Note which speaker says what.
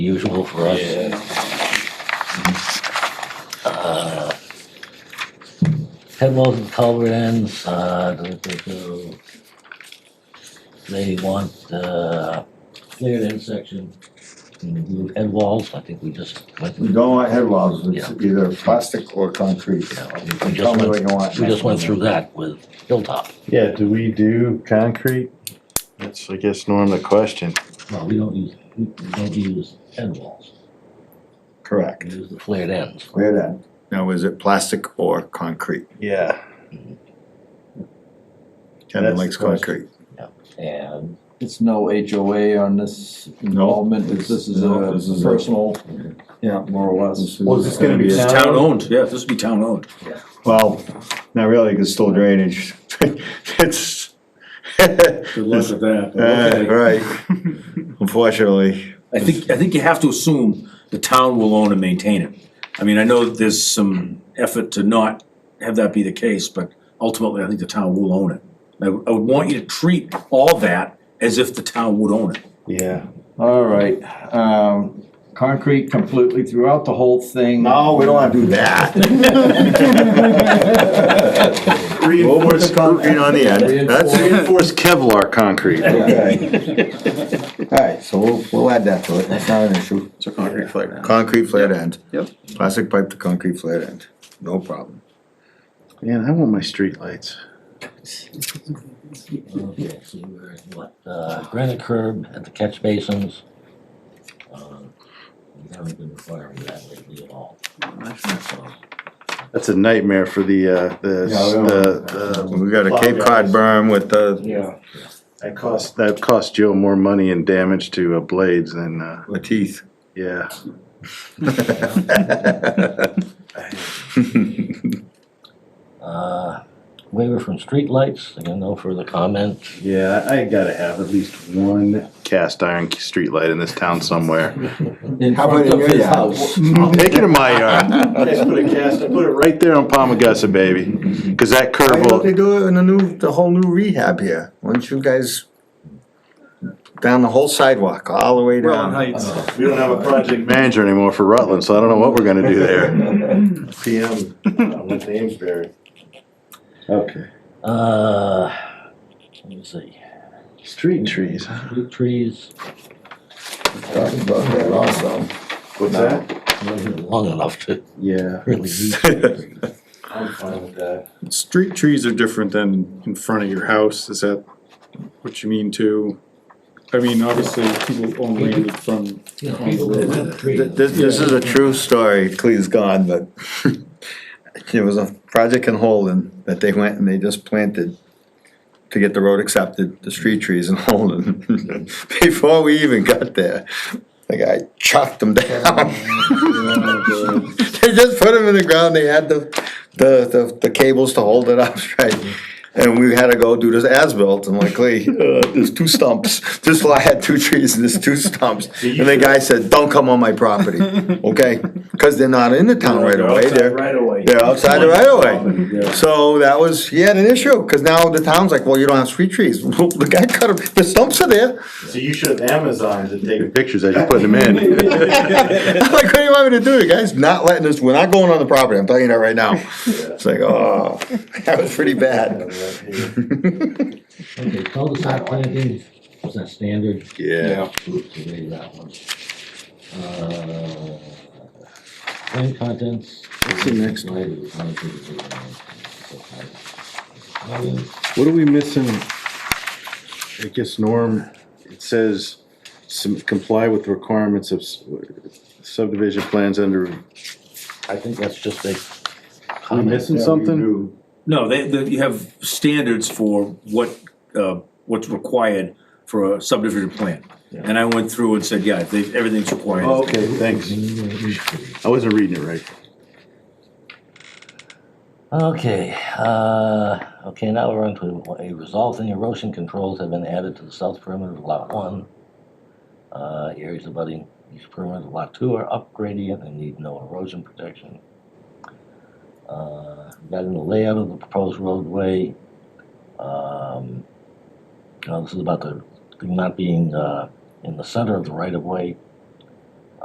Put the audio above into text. Speaker 1: usual for us. Uh, Headwalls and culvert ends, uh, do, do, do. They want, uh, cleared end section, include head walls, I think we just went
Speaker 2: We
Speaker 1: through.
Speaker 2: don't want head walls, it's either plastic or concrete.
Speaker 1: Yeah, we- we
Speaker 2: Tell
Speaker 1: just
Speaker 2: me
Speaker 1: went,
Speaker 2: what you want.
Speaker 1: we just went through that with Hilltop.
Speaker 3: Yeah, do we do concrete? That's, I guess, Norm, the question.
Speaker 1: Well, we don't use, we we don't use end walls,
Speaker 2: Correct.
Speaker 1: we use the flared ends.
Speaker 2: Clear that. Now, is it plastic or concrete?
Speaker 3: Yeah.
Speaker 2: Kevin
Speaker 3: That's
Speaker 2: likes
Speaker 3: the question.
Speaker 2: concrete.
Speaker 1: And
Speaker 4: It's no HOA on this involvement, it's, this is
Speaker 2: No,
Speaker 4: a
Speaker 2: this is a-
Speaker 4: personal,
Speaker 2: Yeah.
Speaker 4: more or less.
Speaker 5: Well, is this gonna be
Speaker 6: It's
Speaker 5: town
Speaker 6: town
Speaker 5: owned?
Speaker 6: owned, yeah, this would be town owned.
Speaker 2: Well, not really, it's still drainage. It's.
Speaker 6: Good luck with that.
Speaker 2: Uh,
Speaker 6: Okay.
Speaker 2: right. Unfortunately,
Speaker 6: I think, I think you have to assume the town will own and maintain it. I mean, I know there's some effort to not have that be the case, but ultimately, I think the town will own it. I, would- I would want you to treat all that as if the town would own it.
Speaker 3: Yeah.
Speaker 4: All right, um, concrete completely throughout the whole thing.
Speaker 2: no, we don't wanna do that. Reinforce concrete on the end, that's it.
Speaker 3: Reinforced Kevlar concrete.
Speaker 2: Alright, so we'll, we'll add that to it, that's not an issue.
Speaker 5: It's a concrete flat now.
Speaker 2: Concrete flared end.
Speaker 5: Yep.
Speaker 2: Plastic pipe to concrete flared end, no problem.
Speaker 3: Man, I want my streetlights.
Speaker 1: Okay, so we're at what, uh, granite curb at the catch basins. Uh, We haven't been requiring that lately at all. So,
Speaker 3: That's a nightmare for the, uh,
Speaker 2: Yeah, we
Speaker 3: the,
Speaker 2: don't-
Speaker 3: the,
Speaker 2: We got a Cape Cod berm with uh, the,
Speaker 5: Yeah.
Speaker 3: that cost, that cost Joe more money and damage to uh, blades than, uh,
Speaker 2: with teeth.
Speaker 3: yeah.
Speaker 1: Uh, waiver from streetlights, again, no further comment.
Speaker 3: Yeah, I gotta have at least one cast iron streetlight in this town somewhere.
Speaker 4: In
Speaker 2: How
Speaker 4: front
Speaker 2: about in
Speaker 4: of
Speaker 2: your
Speaker 4: his
Speaker 2: yard?
Speaker 4: house.
Speaker 3: I'll take it in my yard. Just put a cast, put it right there on Palmagussa, baby, cause that
Speaker 2: Why
Speaker 3: curve
Speaker 2: don't
Speaker 3: will,
Speaker 2: they do it in the new, the whole new rehab here, why don't you guys down the whole sidewalk, all the way
Speaker 5: Welland
Speaker 2: down?
Speaker 5: Heights.
Speaker 4: Uh,
Speaker 3: we don't have a project manager anymore for Rutland, so I don't know what we're gonna do there. PM, uh, with Amesbury. Okay.
Speaker 1: Uh, let me see,
Speaker 3: Street trees.
Speaker 1: fruit trees,
Speaker 2: Talked about that also.
Speaker 3: What's that?
Speaker 1: long enough to
Speaker 3: Yeah.
Speaker 1: really need fruit trees.
Speaker 3: I'm fine with that.
Speaker 5: Street trees are different than in front of your house, is that what you mean too? I mean, obviously, people own land from,
Speaker 1: You know, people that want trees.
Speaker 2: This, this is a true story, Clee's gone, but there was a project in Holden that they went and they just planted to get the road accepted, the street trees in Holden. Before we even got there, the guy chucked them down. They just put them in the ground, they had the, the, the, the cables to hold it up, right? And we had to go do this as-built, and like, Lee, uh, there's two stumps, this lot had two trees and there's two stumps. And the guy said, don't come on my property, okay? Cause they're not in the town right away, they're,
Speaker 4: Right away.
Speaker 2: they're outside the right away. So that was, he had an issue, cause now the town's like, well, you don't have street trees, the guy cut 'em, the stumps are there.
Speaker 3: So you should have Amazons and taking pictures as you're putting them in.
Speaker 2: I'm like, what do you want me to do? The guy's not letting us, we're not going on the property, I'm telling you that right now. It's like, oh, that was pretty bad.
Speaker 1: Okay, cul-de-sac planting, was that standard?
Speaker 3: Yeah.
Speaker 1: Oops, I made that one. Uh, Plan contents. What's the next one?
Speaker 3: What are we missing? I guess Norm, it says some comply with requirements of s- subdivision plans under,
Speaker 1: I think that's just a
Speaker 3: are we
Speaker 1: comment.
Speaker 3: missing something?
Speaker 6: No, they, they, you have standards for what, uh, what's required for a subdivision plan. And I went through and said, yeah, they, everything's required.
Speaker 3: Oh, Okay, thanks. I wasn't reading it right.
Speaker 1: Okay, uh, okay, now we're on to a resolving erosion controls have been added to the south perimeter of lot one. Uh, areas abutting east perimeter of lot two are up gradient and need no erosion protection. Uh, that in the layout of the proposed roadway. Um, now this is about the thing not being, uh, in the center of the right of way.